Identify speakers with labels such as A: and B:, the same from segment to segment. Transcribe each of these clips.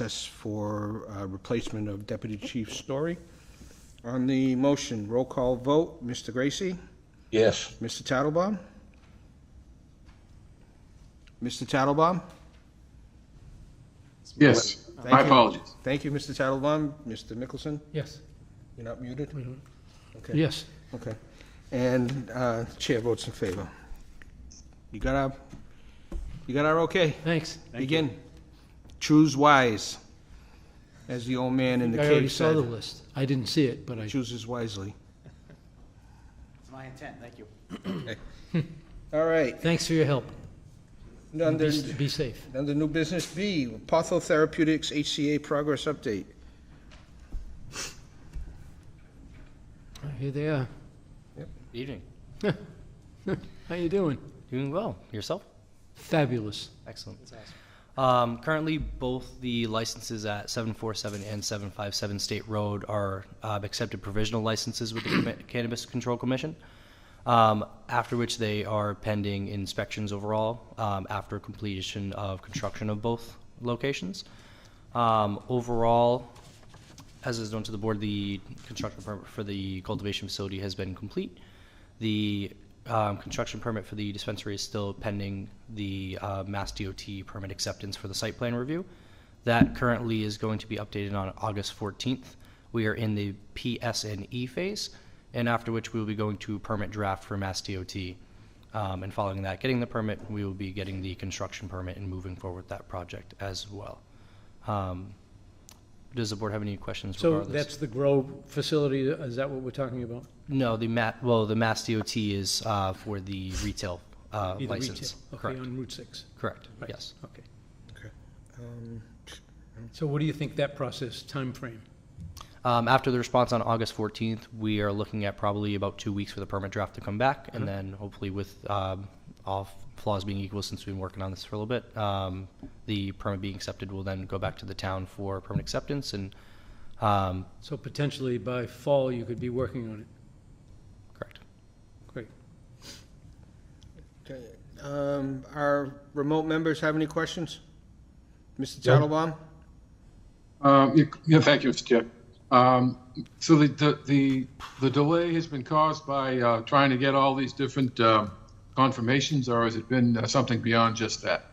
A: process for uh, replacement of Deputy Chief Story. On the motion, roll call vote, Mr. Gracie,
B: Yes.
A: Mr. Tattelbaum? Mr. Tattelbaum?
C: Yes,
A: Thank
C: my
A: you.
C: apologies.
A: Thank you, Mr. Tattelbaum. Mr. Mickelson,
D: Yes,
A: you're not muted?
D: Mm-hmm.
A: Okay.
D: yes.
A: Okay. And uh, Chair votes in favor. You got our, you got our okay?
D: Thanks.
A: Begin. Choose wise, as the old man in the
D: I already
A: cave
D: saw the
A: said.
D: list. I didn't see it, but I,
A: Chooses wisely.
E: It's my intent, thank you.
A: All right.
D: thanks for your help.
A: Under,
D: Be be safe.
A: under new business B, Patho Therapeutics HCA progress update.
D: Here they are.
F: Evening.
D: How you doing?
F: Doing well. Yourself?
D: Fabulous.
F: Excellent. Um, currently, both the licenses at 747 and 757 State Road are uh, accepted provisional licenses with the Commi- Cannabis Control Commission, um, after which they are pending inspections overall um, after completion of construction of both locations. Um, overall, as is known to the board, the construction permit for the cultivation facility has been complete. The um, construction permit for the dispensary is still pending the uh, Mass DOT permit acceptance for the site plan review. That currently is going to be updated on August 14th. We are in the PS&E E phase, and after which we will be going to permit draft for Mass DOT. Um, And following that, getting the permit, we will be getting the construction permit and moving forward with that project as well. Um, Does the board have any questions
D: So
F: regarding this?
D: that's the grow facility, uh, is that what we're talking about?
F: No, the ma, well, the Mass DOT is uh, for the retail uh,
D: Either retail.
F: license.
D: Okay,
F: Correct,
D: on Route 6.
F: correct, yes.
D: Okay.
A: Um,
D: So what do you think that process, time frame?
F: Um, After the response on August 14th, we are looking at probably about two weeks for the permit draft to come back, and then hopefully with um, all flaws being equal, since we've been working on this for a little bit, um, the permit being accepted will then go back to the town for permit acceptance, and, um,
D: So potentially by fall, you could be working on it.
F: correct.
D: Great.
A: okay. Um, Our remote members have any questions? Mr. Tattelbaum?
C: Um, you- Yeah, thank you, Mr. Chair. Um, So the- the, the, the delay has been caused by uh, trying to get all these different uh, confirmations, or has it been uh, something beyond just that?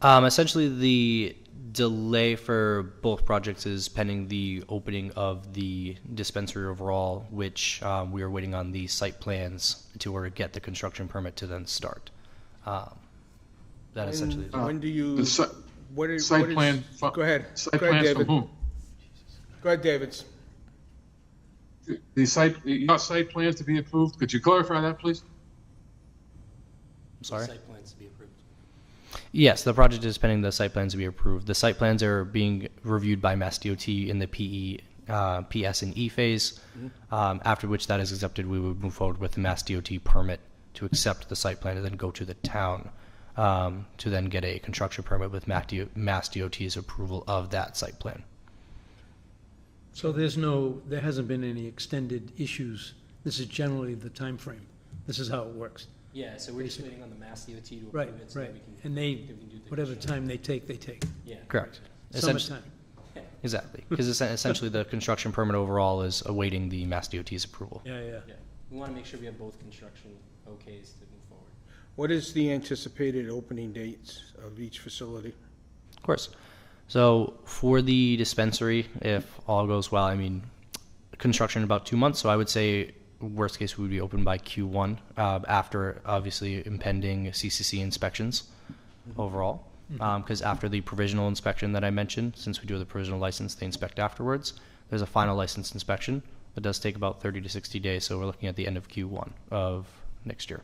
F: Um, essentially, the delay for both projects is pending the opening of the dispensary overall, which um, we are waiting on the site plans to order get the construction permit to then start. Um, that essentially.
A: When- When do you,
C: The si-
A: what is?
C: site
A: what is-
C: plan fu-
A: Go ahead.
C: Site
A: Go ahead,
C: plans
A: David.
C: from whom?
A: Go ahead, David.
C: The site, your site plans to be approved? Could you clarify that, please?
F: I'm sorry. Site plans to be approved. Yes, the project is pending the site plans to be approved. The site plans are being reviewed by Mass DOT in the PE, uh, PS and E phase. Um, after which that is accepted, we would move forward with the Mass DOT permit to accept the site plan and then go to the town um, to then get a construction permit with Mac DO- Mass DOT's approval of that site plan.
D: So there's no, there hasn't been any extended issues. This is generally the time frame. This is how it works.
G: Yeah, so we're just waiting on the Mass DOT to
D: Right,
G: approve it so
D: right.
G: that we can.
D: And they,
G: we can do the
D: whatever time they take, they take.
G: Yeah.
F: Correct. Essentially,
D: Summertime.
F: exactly, because essentially the construction permit overall is awaiting the Mass DOT's approval.
D: Yeah, yeah.
G: Yeah. We want to make sure we have both construction okays to move forward.
A: What is the anticipated opening dates of each facility?
F: Of course. So for the dispensary, if all goes well, I mean, construction in about two months. So I would say worst case we would be open by Q1 uh, after obviously impending CCC inspections overall. Because after the provisional inspection that I mentioned, since we do the provisional license, they inspect afterwards. There's a final license inspection that does take about 30 to 60 days. So we're looking at the end of Q1 of next year.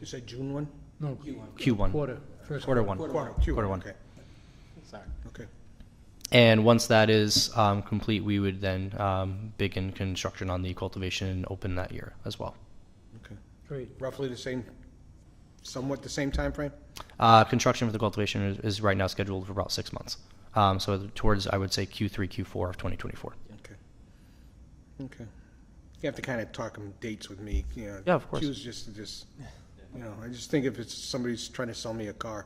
A: You said June one?
D: No,
F: Q1.
D: quarter, first
F: Quarter one.
A: Quarter,
F: Quarter one.
A: okay.
G: Sorry.
A: Okay.
F: And once that is um, complete, we would then um, begin construction on the cultivation and open that year as well.
D: Great.
A: Roughly the same, somewhat the same time frame.
F: Uh, construction for the cultivation is, is right now scheduled for about six months. Um, so towards, I would say, Q3, Q4 of 2024.
A: Okay. Okay. You have to kind of talk them dates with me, you know.
F: Yeah, of course.
A: Choose just to just, you know, I just think if it's, somebody's trying to sell me a car,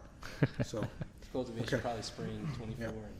A: so.
G: cultivation
A: Okay.
G: probably spring twenty-four. and-